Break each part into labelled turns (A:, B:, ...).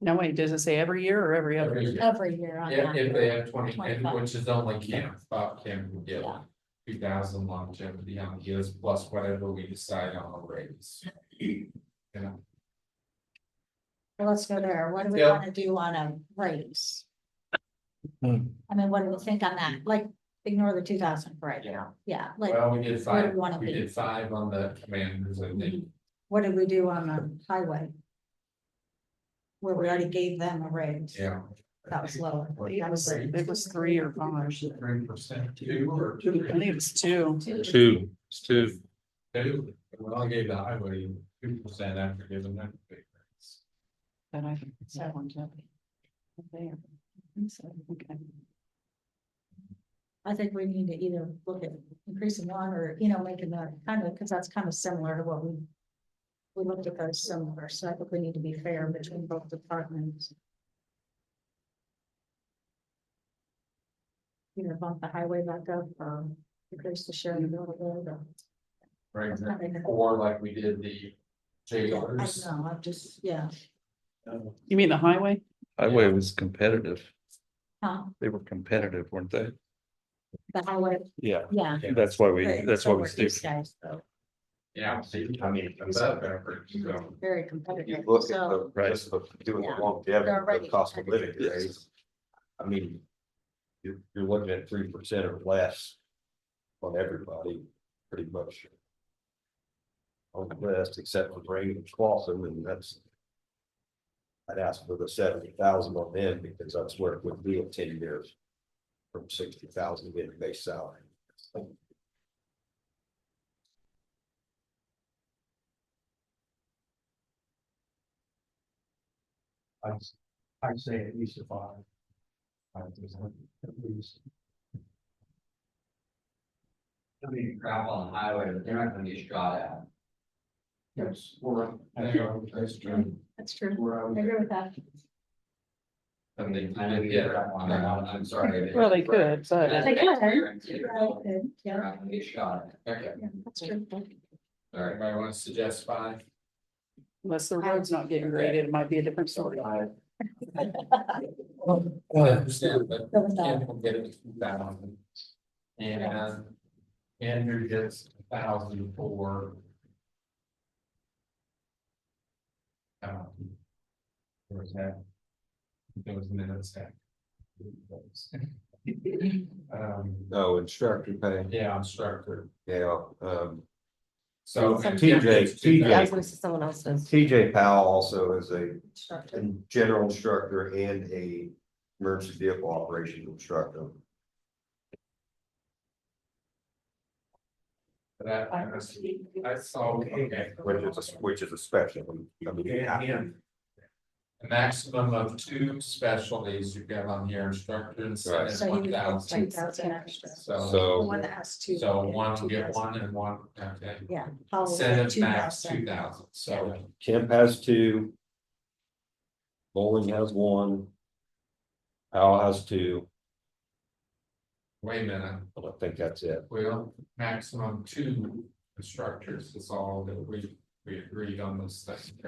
A: No, wait, does it say every year or every other
B: Every
A: year?
B: year.
C: every year on
B: If,
C: that.
B: if they have twenty, and
C: 25.
B: which is only Kim, Bob Kim would get
C: Yeah.
B: two thousand longevity on the years, plus whatever we decide on the raise. Yeah,
C: Well, Let's go there. What do we
B: Yeah.
C: wanna do on a raise?
A: Hmm.
C: I mean, what do we think on that? Like, ignore the two thousand for right now. Yeah, like,
B: well, we did
C: where do
B: five,
C: we wanna
B: we
C: be?
B: did five on the commanders, I think,
C: What did we do on the highway? Where we already gave them a raise.
B: yeah.
C: That was lower.
A: It was, it was three or five.
B: Three percent, two or
A: I think it was two.
D: Two, it's two.
B: two, well, I gave the highway two percent after giving them. a big raise.
A: But I think it's that one, too. There. I think so. Okay.
C: I think we need to either look at increasing one or, you know, making the kind of, because that's kind of similar to what we. We looked at those similar, so I think we need to be fair between both departments. You know, bump the highway back up, um, increase the share a little bit. or-
B: Right,
C: That's not enough.
B: or like we did the
C: I
B: jailers.
C: know, I'm just, yeah,
A: You mean the highway?
D: Highway was competitive.
C: huh,
D: They were competitive, weren't they?
C: the highway,
D: Yeah,
C: yeah.
D: that's why we,
C: but
D: that's
C: so
D: why we
C: were
D: stick.
C: these Guys, though,
B: Yeah, see, I mean, it's up effort, so.
C: very
E: You
C: competitive,
E: look at
C: so,
E: the, just the, doing the longevity,
C: They're
E: of
C: already
E: the cost of living
D: Yes.
E: raise. I mean. You're, you're looking at three percent or less. On everybody, pretty much. On the list, except for Brady Clausen, and that's. I'd ask for the seventy thousand on them, because that's where it would be in ten years. From sixty thousand getting base salary.
F: I, I say at least a five. Five percent, at least.
G: I mean, crap on the highway, but they're not gonna get shot at.
F: Yes, or.
B: Yeah, that's true.
C: that's true,
F: Where I
C: I
F: would,
C: agree with that.
B: I mean,
G: I know you get crap on that, I'm, I'm sorry.
A: Well, they could, but
C: They could,
G: They're
C: Right, yeah,
G: not gonna get shot at.
B: Okay,
C: yeah, that's true.
B: all right, I wanna suggest five.
A: unless the road's not getting graded, it might be a different story.
F: uh,
B: I understand, but
C: Go with that.
B: Kim will get it two thousand. And Andrew gets a thousand for. um, There was that. There was minutes that. Um,
E: No instructor pay,
B: yeah, I'm structured,
E: yeah, um.
B: so.
E: So-
B: Kim gets
E: TJ.
B: 2,000.
C: someone else does.
E: TJ Powell also is a
C: Instructor.
E: a general instructor and a emergency vehicle operations instructor.
B: That, I saw, okay.
E: Which is, a- which is a special. I mean,
B: Yeah. A maximum of two specialties you get on here, instructors
E: Right.
B: and
C: So you
B: one
C: would have
B: thousand.
C: two thousand extra.
B: So,
C: The
E: So,
C: one that has two.
B: so
C: yeah,
B: one will
C: two
B: get
C: thousand.
B: one and one, okay.
C: Yeah. Paul will
B: Instead
C: get
B: of
C: two
B: max
C: thousand.
B: two thousand, so
E: Kemp has two. Bowling has one. Powell has two,
B: wait a minute,
E: but I think that's it.
B: well, maximum two instructors is all that we, we agreed on this thing.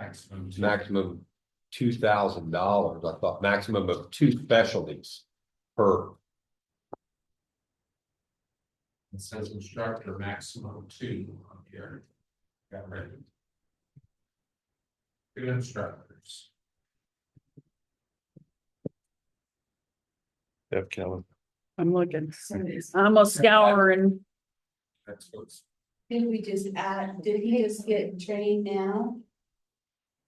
B: Maximum two.
E: Maximum two thousand dollars, I thought, maximum of two specialties per.
B: It says instructor maximum two on here. Got rid of. it. Two instructors.
D: Yeah, Kevin.
A: I'm looking. I'm a scouring.
B: That's what's.
H: Did we just add, did he just get trained now?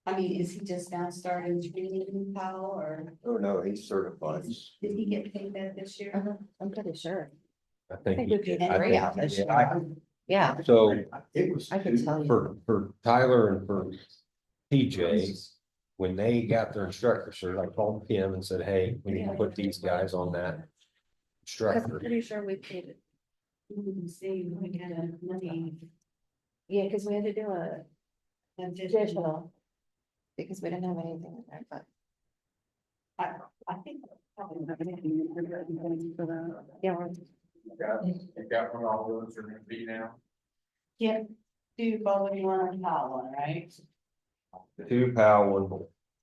H: I mean, is he just now starting training Powell or
E: Oh, no, he's certified.
H: did he get paid that this year?
C: Uh-huh, I'm pretty sure.
E: I think.
C: think
E: he
C: it'd be
E: did. I
C: three
E: think-
C: out this
E: yeah, I-
C: Yeah,
E: So.
F: it was.
C: I can tell you.
E: For, for Tyler and for PJ, when they got their instructor cert, I called Kim and said, hey, we need to put these guys on that
H: Cause I'm
E: instructor.
H: pretty sure we paid it. We can see what kind of money.
C: yeah, because we had to do a
H: that did-
C: digital. Because we didn't have anything in there, but
H: I, I think. probably not.
C: yeah, we're
B: Got, you got what all those are gonna be now.
H: Can't do both of you on a Powell, right?
E: Two Powell,